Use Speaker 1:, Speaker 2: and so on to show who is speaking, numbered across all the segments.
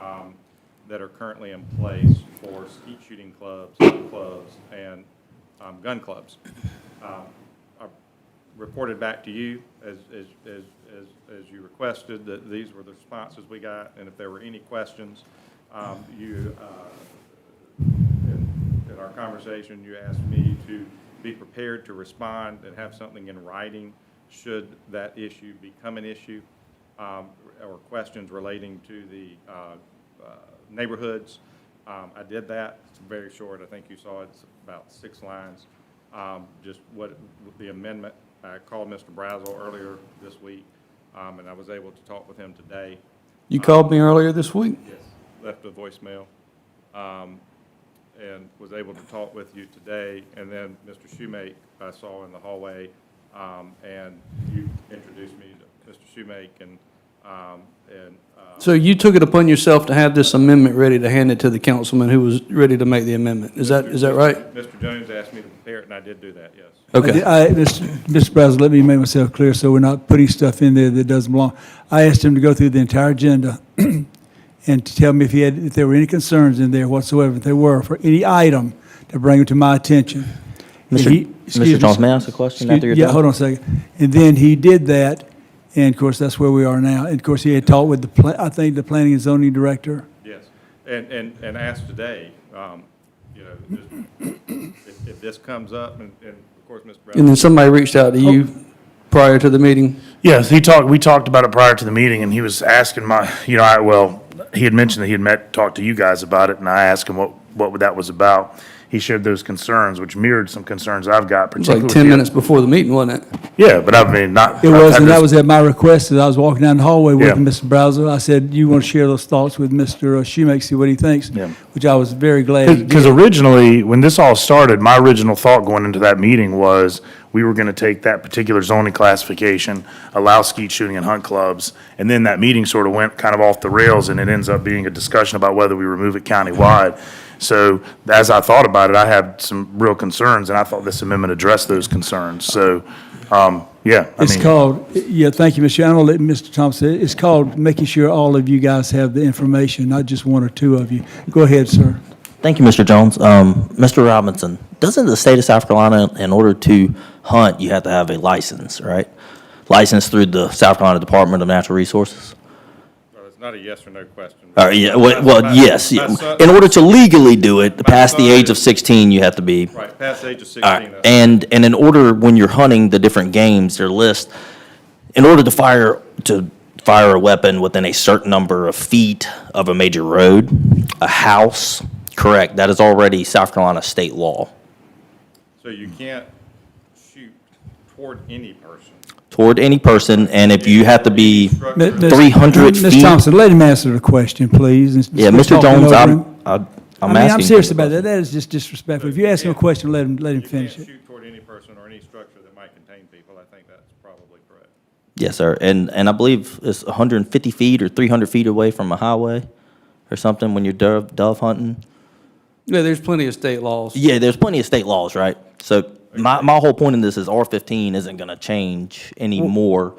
Speaker 1: um, that are currently in place for skeet shooting clubs, gun clubs, and um, gun clubs. Um, I reported back to you as, as, as, as, as you requested, that these were the responses we got, and if there were any questions, um, you, uh, in in our conversation, you asked me to be prepared to respond and have something in writing should that issue become an issue, um, or questions relating to the, uh, uh, neighborhoods. Um, I did that. It's very short. I think you saw it. It's about six lines. Um, just what, the amendment, I called Mr. Brazel earlier this week, um, and I was able to talk with him today.
Speaker 2: You called me earlier this week?
Speaker 1: Yes. Left a voicemail, um, and was able to talk with you today, and then Mr. Schumake I saw in the hallway, um, and you introduced me to Mr. Schumake and, um, and, uh,
Speaker 2: So you took it upon yourself to have this amendment ready to hand it to the councilman who was ready to make the amendment. Is that, is that right?
Speaker 1: Mr. Jones asked me to prepare it, and I did do that, yes.
Speaker 2: Okay.
Speaker 3: I, Mr. Brazel, let me make myself clear so we're not putting stuff in there that doesn't belong. I asked him to go through the entire agenda and to tell me if he had, if there were any concerns in there whatsoever, if there were, for any item, to bring it to my attention. And he-
Speaker 4: Mr.
Speaker 3: excuse me,
Speaker 4: Mr. Jones,
Speaker 3: sir.
Speaker 4: may I ask a question
Speaker 3: Excuse-
Speaker 4: after you're
Speaker 3: Yeah,
Speaker 4: done?
Speaker 3: hold on a second. And then he did that, and of course, that's where we are now. And of course, he had talked with the, pla- I think, the planning and zoning director.
Speaker 1: Yes, and, and, and ask today, um, you know, just if, if this comes up, and, and of course, Mr.
Speaker 2: And
Speaker 1: Brown,
Speaker 2: then somebody reached out to you prior to the meeting?
Speaker 5: Yes, he talked, we talked about it prior to the meeting, and he was asking my, you know, I, well, he had mentioned that he had met, talked to you guys about it, and I asked him what, what that was about. He shared those concerns, which mirrored some concerns I've got,
Speaker 2: It was
Speaker 5: particularly.
Speaker 2: like
Speaker 5: with
Speaker 2: 10
Speaker 5: the-
Speaker 2: minutes before the meeting, wasn't it?
Speaker 5: Yeah, but I mean, not.
Speaker 3: It
Speaker 5: I've
Speaker 3: was,
Speaker 5: had
Speaker 3: and that
Speaker 5: those-
Speaker 3: was at my request, as I was walking down the hallway with
Speaker 5: Yeah.
Speaker 3: Mr. Brazel. I said, you want to share those thoughts with Mr. Schumake, see what he thinks?
Speaker 5: Yeah.
Speaker 3: Which I was very glad he
Speaker 5: Because
Speaker 3: did.
Speaker 5: originally, when this all started, my original thought going into that meeting was we were going to take that particular zoning classification, allow skeet shooting and hunt clubs, and then that meeting sort of went kind of off the rails, and it ends up being a discussion about whether we remove it countywide. So as I thought about it, I had some real concerns, and I thought this amendment addressed those concerns. So, um, yeah. I
Speaker 3: It's
Speaker 5: mean-
Speaker 3: called, yeah, thank you, Mr. Chairman. I'll let Mr. Thompson, it's called making sure all of you guys have the information, not just one or two of you. Go ahead, sir.
Speaker 4: Thank you, Mr. Jones. Um, Mr. Robinson, doesn't the state of South Carolina, in order to hunt, you have to have a license, right? License through the South Carolina Department of Natural Resources?
Speaker 1: well, it's not a yes or no question.
Speaker 4: Or, yeah, well, well, yes.
Speaker 1: My son-
Speaker 4: In order to legally do it, past the
Speaker 1: son
Speaker 4: age of
Speaker 1: is-
Speaker 4: 16, you have to be
Speaker 1: Right, past the age of
Speaker 4: All right.
Speaker 1: sixteen. that's-
Speaker 4: And, and in order, when you're hunting the different games, their list, in order to fire, to fire a weapon within a certain number of feet of a major road, a house, correct, that is already South Carolina state law
Speaker 1: So you
Speaker 3: Hmm.
Speaker 1: can't shoot toward any person.
Speaker 4: toward any person, and if you have to be,
Speaker 3: Mi-
Speaker 1: Structure-
Speaker 3: Ms.
Speaker 4: 300
Speaker 3: Ms.
Speaker 4: feet.
Speaker 3: Thompson, let him answer the question, please. and
Speaker 4: yeah,
Speaker 3: stop
Speaker 4: Mr.
Speaker 3: talking
Speaker 4: Jones,
Speaker 3: over
Speaker 4: I'm,
Speaker 3: him.
Speaker 4: I'm
Speaker 3: I
Speaker 4: I'm
Speaker 3: mean,
Speaker 4: asking.
Speaker 3: I'm serious about that. That is just disrespectful. If you ask him a question, let him, let him
Speaker 1: You can't
Speaker 3: finish it.
Speaker 1: shoot toward any person or any structure that might contain people. I think that's probably correct.
Speaker 4: Yes, sir. And, and I believe it's 150 feet or 300 feet away from a highway or something when you're dove, dove hunting.
Speaker 2: Yeah, there's plenty of state laws.
Speaker 4: Yeah, there's plenty of state laws, right? So my, my whole point in this is R fifteen isn't gonna change any more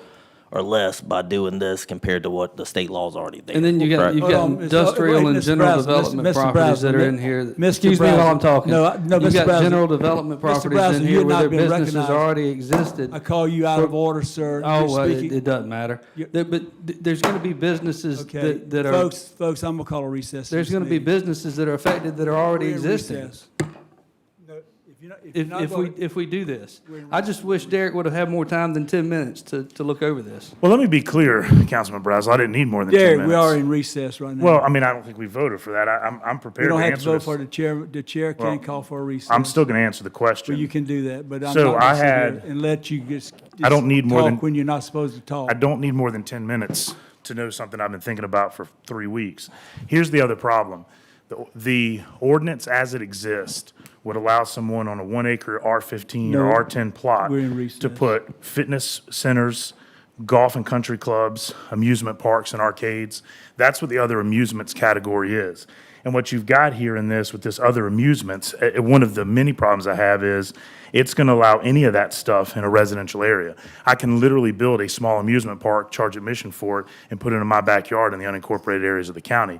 Speaker 4: or less by doing this compared to what the state law's already there.
Speaker 2: And then you got,
Speaker 4: correct?
Speaker 2: you've
Speaker 3: Hold
Speaker 2: got
Speaker 3: on, Mr. wait,
Speaker 2: industrial and
Speaker 3: Mr.
Speaker 2: general
Speaker 3: Brazel, Mr.
Speaker 2: development
Speaker 3: Mr.
Speaker 2: properties
Speaker 3: Brazel,
Speaker 2: that are
Speaker 3: Mi-
Speaker 2: in here. that-
Speaker 3: Mr.
Speaker 2: Excuse me while I'm
Speaker 3: Brazel,
Speaker 2: talking.
Speaker 3: no, I- no, Mr.
Speaker 2: You've got
Speaker 3: Brazel,
Speaker 2: general development
Speaker 3: Mr.
Speaker 2: properties
Speaker 3: Brazel,
Speaker 2: in
Speaker 3: you're
Speaker 2: here
Speaker 3: not
Speaker 2: where their
Speaker 3: being
Speaker 2: businesses
Speaker 3: recognized.
Speaker 2: already existed.
Speaker 3: I call you out of order, sir.
Speaker 2: Oh,
Speaker 3: You're
Speaker 2: well, it,
Speaker 3: speaking-
Speaker 2: it doesn't matter.
Speaker 3: You're-
Speaker 2: There- But th- there's gonna be businesses
Speaker 3: Okay,
Speaker 2: that, that are,
Speaker 3: folks, folks, I'm gonna call a recess.
Speaker 2: there's gonna be businesses that are affected that are already existing. If, if we, if we do this. I just wish Derek would have had more time than ten minutes to, to look over this.
Speaker 5: Well, let me be clear, Councilman Brazel, I didn't need more than ten minutes.
Speaker 3: Derek, we are in recess right now.
Speaker 5: Well, I mean, I don't think we voted for that. I, I'm, I'm
Speaker 3: We
Speaker 5: prepared to
Speaker 3: don't
Speaker 5: answer
Speaker 3: have to vote
Speaker 5: this.
Speaker 3: for it. the chair, the chair
Speaker 5: Well,
Speaker 3: can call for a recess.
Speaker 5: I'm still going to answer the question.
Speaker 3: Well, you can do that, but I'm not
Speaker 5: So I
Speaker 3: gonna sit here
Speaker 5: had-
Speaker 3: and let you just.
Speaker 5: I don't need more
Speaker 3: talk
Speaker 5: than-
Speaker 3: When you're not supposed to talk.
Speaker 5: I don't need more than 10 minutes to know something I've been thinking about for three weeks. Here's the other problem. The- The ordinance as it exists would allow someone on a one acre R15
Speaker 3: No,
Speaker 5: or R10 plot
Speaker 3: we're in recess.
Speaker 5: to put fitness centers, golf and country clubs, amusement parks and arcades. That's what the other amusements category is. And what you've got here in this with this other amusements, eh, eh, one of the many problems I have is it's going to allow any of that stuff in a residential area. I can literally build a small amusement park, charge admission for it, and put it in my backyard in the unincorporated areas of the county.